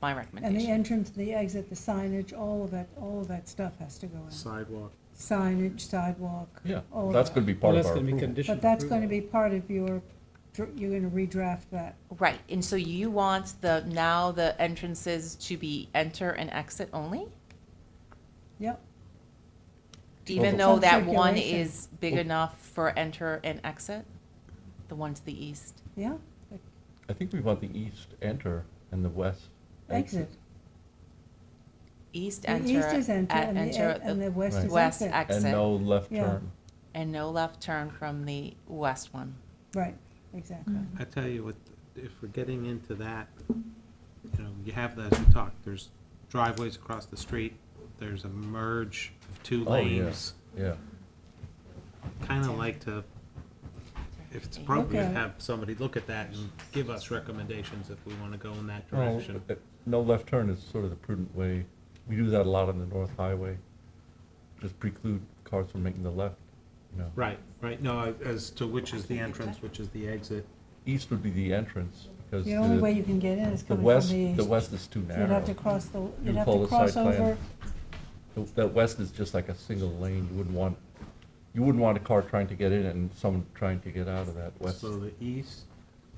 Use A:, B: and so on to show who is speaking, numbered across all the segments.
A: my
B: And the
A: recommendation.
B: entrance, the exit, the signage, all of that, all of that stuff has to go in.
C: sidewalk.
B: Signage, sidewalk.
D: Yeah,
B: all of
E: That's
B: that.
E: gonna be
D: Well,
E: part of
D: that's
E: our
D: going to be
E: approval.
D: conditioned.
B: But that's going to be part of your, dr- you're going to redraft that.
A: Right, and so you want the, now the entrances to be enter and exit only?
B: Yep.
A: Even
E: Some
A: though that one
B: circulation.
A: is big
E: Well-
A: enough for enter and exit? The one to the east?
B: Yeah,
E: I think we want the east enter and the west
B: exit.
A: East
B: The
A: enter.
B: east is enter
A: at-
B: and the,
A: enter
B: e-
A: at
B: and the west
E: Right.
B: is
A: West
B: exit.
A: exit.
E: And no left
B: Yeah.
E: turn.
A: And no left turn from the west one.
B: Right, exactly.
E: Mm.
C: I tell you what, if we're getting into that, you know, you have, as we talked, there's driveways across the street, there's a merge of two
E: Oh, yeah.
C: lanes.
E: Yeah,
C: Kind of like to, if it's appropriate,
B: Okay.
C: have somebody look at that and give us recommendations if we want to go in that
E: no,
C: direction.
E: uh, no left turn is sort of the prudent way. We do that a lot on the North Highway. Just preclude cars from making the left, you know.
C: Right, right, no, I- as to which is the entrance, which is the exit.
E: East would be the entrance, because
B: The only way
E: the,
B: you can get in is
E: the
B: coming from
E: west,
B: the east.
E: the west is too
B: You'd
E: narrow.
B: have to cross the,
E: You
B: you'd have
E: follow
B: to
E: the
B: cross
E: side plan.
B: over,
E: The- That west is just like a single lane, you wouldn't want, you wouldn't want a car trying to get in and someone trying to get out of that west.
C: So the east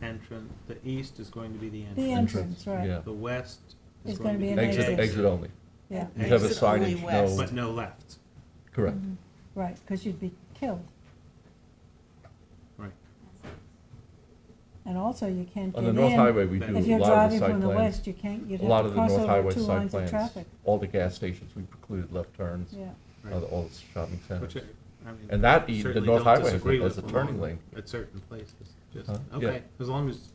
C: entrance, the east is going to be the
B: the
C: entrance.
B: entrance, right,
E: Yeah.
C: The west is
B: It's
C: going to be
B: an
C: the
E: Exit, exit only,
B: yeah,
E: you have a
C: Exit only
E: signage, no,
C: But no left,
E: correct.
B: Mm-hmm. right, because you'd be killed.
C: right.
B: And also, you can't get
E: On
B: in.
E: the North Highway, we do a
C: If
E: lot of the
B: If
E: side plans.
B: you're driving from the west, you can't, you'd
E: A lot
B: have to
E: of the
B: cross
E: North
B: over
E: Highway
B: two
E: side
B: lines of
E: plans,
B: traffic,
E: all the gas stations, we precluded left turns,
B: yeah.
E: uh, all the shopping
C: Which, I-
E: centers.
C: I mean,
E: And that e- the
C: certainly
E: North
C: don't
E: Highway has a-
C: disagree
E: has
C: with
E: a turning
C: along
E: lane.
C: At certain places, just,
E: Huh? Yeah.
C: okay, as long as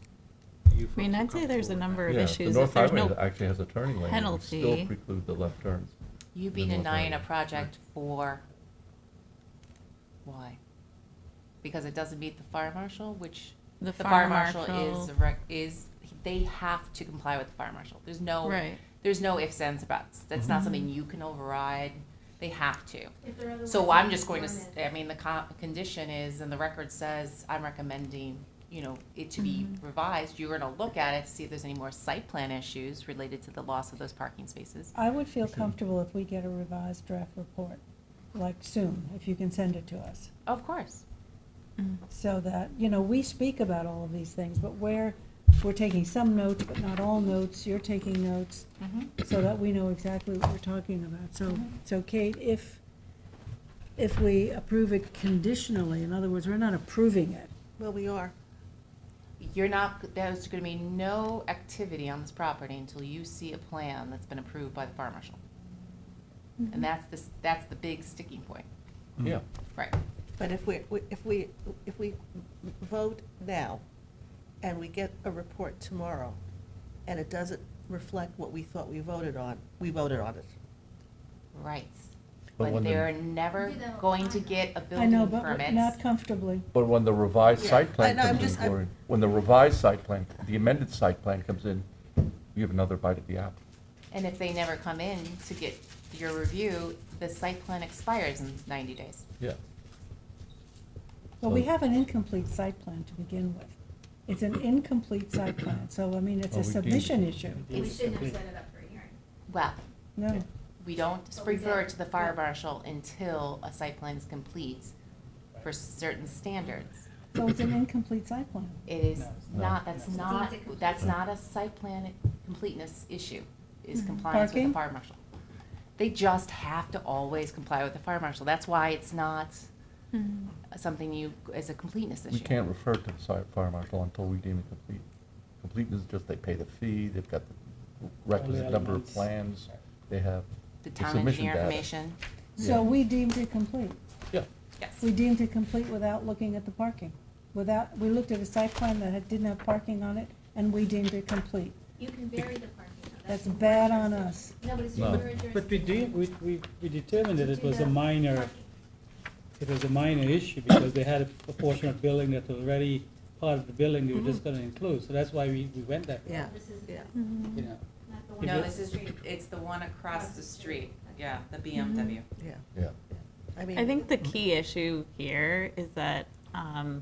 C: you.
F: I mean,
C: folks are
F: I'd say there's a
C: comfortable with
F: number
C: that.
F: of
E: Yeah,
F: issues.
E: The
F: If
E: North
F: there's
E: Highway
F: no,
E: actually has a turning lane, and would still
F: penalty-
E: preclude the left turns.
A: You've been
E: Then what
A: denying a
E: happened?
A: project for, why? Because it doesn't meet the fire marshal, which,
F: the
A: the fire marshal is,
F: a
A: rec- is, they have to comply with the fire marshal. There's no,
F: Right.
A: there's no ifs, ands, or buts. That's not something you can override. They have to. So I'm just going to, s- I mean, the co- condition is, and the record says, I'm recommending, you know, it to be revised. You're going to look at it to see if there's any more site plan issues related to the loss of those parking spaces.
B: I would feel comfortable if we get a revised draft report, like soon, if you can send it to us.
A: Of course.
B: So that, you know, we speak about all of these things, but where, we're taking some notes, but not all notes, you're taking notes,
A: Mm-hmm.
B: so that we know exactly what we're talking about. So, so Kate, if, if we approve it conditionally, in other words, we're not approving it.
G: Well, we are.
A: You're not, there's going to be no activity on this property until you see a plan that's been approved by the fire marshal.
B: Mm-hmm.
A: And that's the, s- that's the big sticking point.
C: Hmm.
E: Yeah,
A: Right.
G: But if we, if we, if we vote now and we get a report tomorrow and it doesn't reflect what we thought we voted on, we voted on it.
A: Right.
E: But
A: But
E: when the-
A: they're never
H: Do that
A: going to
H: online.
A: get a
B: I
A: building
B: know,
A: permit.
B: but we're not comfortably.
E: but when the revised
G: Yeah,
E: site plan
G: I know, I'm
E: comes in,
G: just- I'm-
E: Gloria, when the revised site plan, the amended site plan comes in, we have another bite at the apple.
A: And if they never come in to get your review, the site plan expires in ninety days.
E: Yeah,
B: Well, we
E: So-
B: have an incomplete site plan to begin with. It's an incomplete site plan, so I mean, it's
E: Well,
B: a
E: we deemed
B: submission
E: it.
B: issue.
H: We shouldn't have set it up for a hearing.
A: Well,
B: No,
A: we don't
H: But we
A: refer
H: did.
A: to the fire marshal until a site plan is complete for certain standards.
B: so it's an incomplete site plan.
A: It is
E: No.
A: not, that's
H: No.
A: not,
H: Deemed it
A: that's
E: complete.
A: not a site plan completeness issue, is compliance with the
B: Parking?
A: fire marshal. They just have to always comply with the fire marshal. That's why it's not Mm-hmm. something you, as a completeness issue.
E: we can't refer to the site fire marshal until we deem it complete. Completeness is just they pay the fee, they've got the requisite number of
D: elements.
E: plans, they have
A: The
E: the
A: town
E: submission
A: engineer
E: data.
A: information,
B: So
E: Yeah.
B: we deemed it complete.
E: Yeah,
A: yes.
B: We deemed it complete without looking at the parking. Without, we looked at a site plan that had- didn't have parking on it, and we deemed it complete.
H: You can vary the parking. though.
B: That's
H: your
B: bad on us.
H: jurisdiction. No, but it's
E: No.
H: your
D: But we did,
H: jurisdiction
D: we, we, we determined that
H: to
D: it
H: do
D: was
H: the
D: a minor,
H: parking.
D: it was a minor issue because they had a portion of building that was already part of the building they were just gonna include, so that's why we, we went that way,
G: Yeah,
H: This is
G: yeah.
D: you know.
H: not the one.
D: If
A: No,
D: it-
H: on
A: this
H: the
A: is,
H: street.
A: it's the one across the street, yeah, the BMW.
G: yeah.
E: yeah.
G: I mean.
F: I think the key issue here is that um,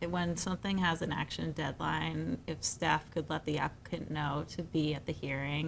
F: it- when something has an action deadline, if staff could let the applicant know to be at the hearing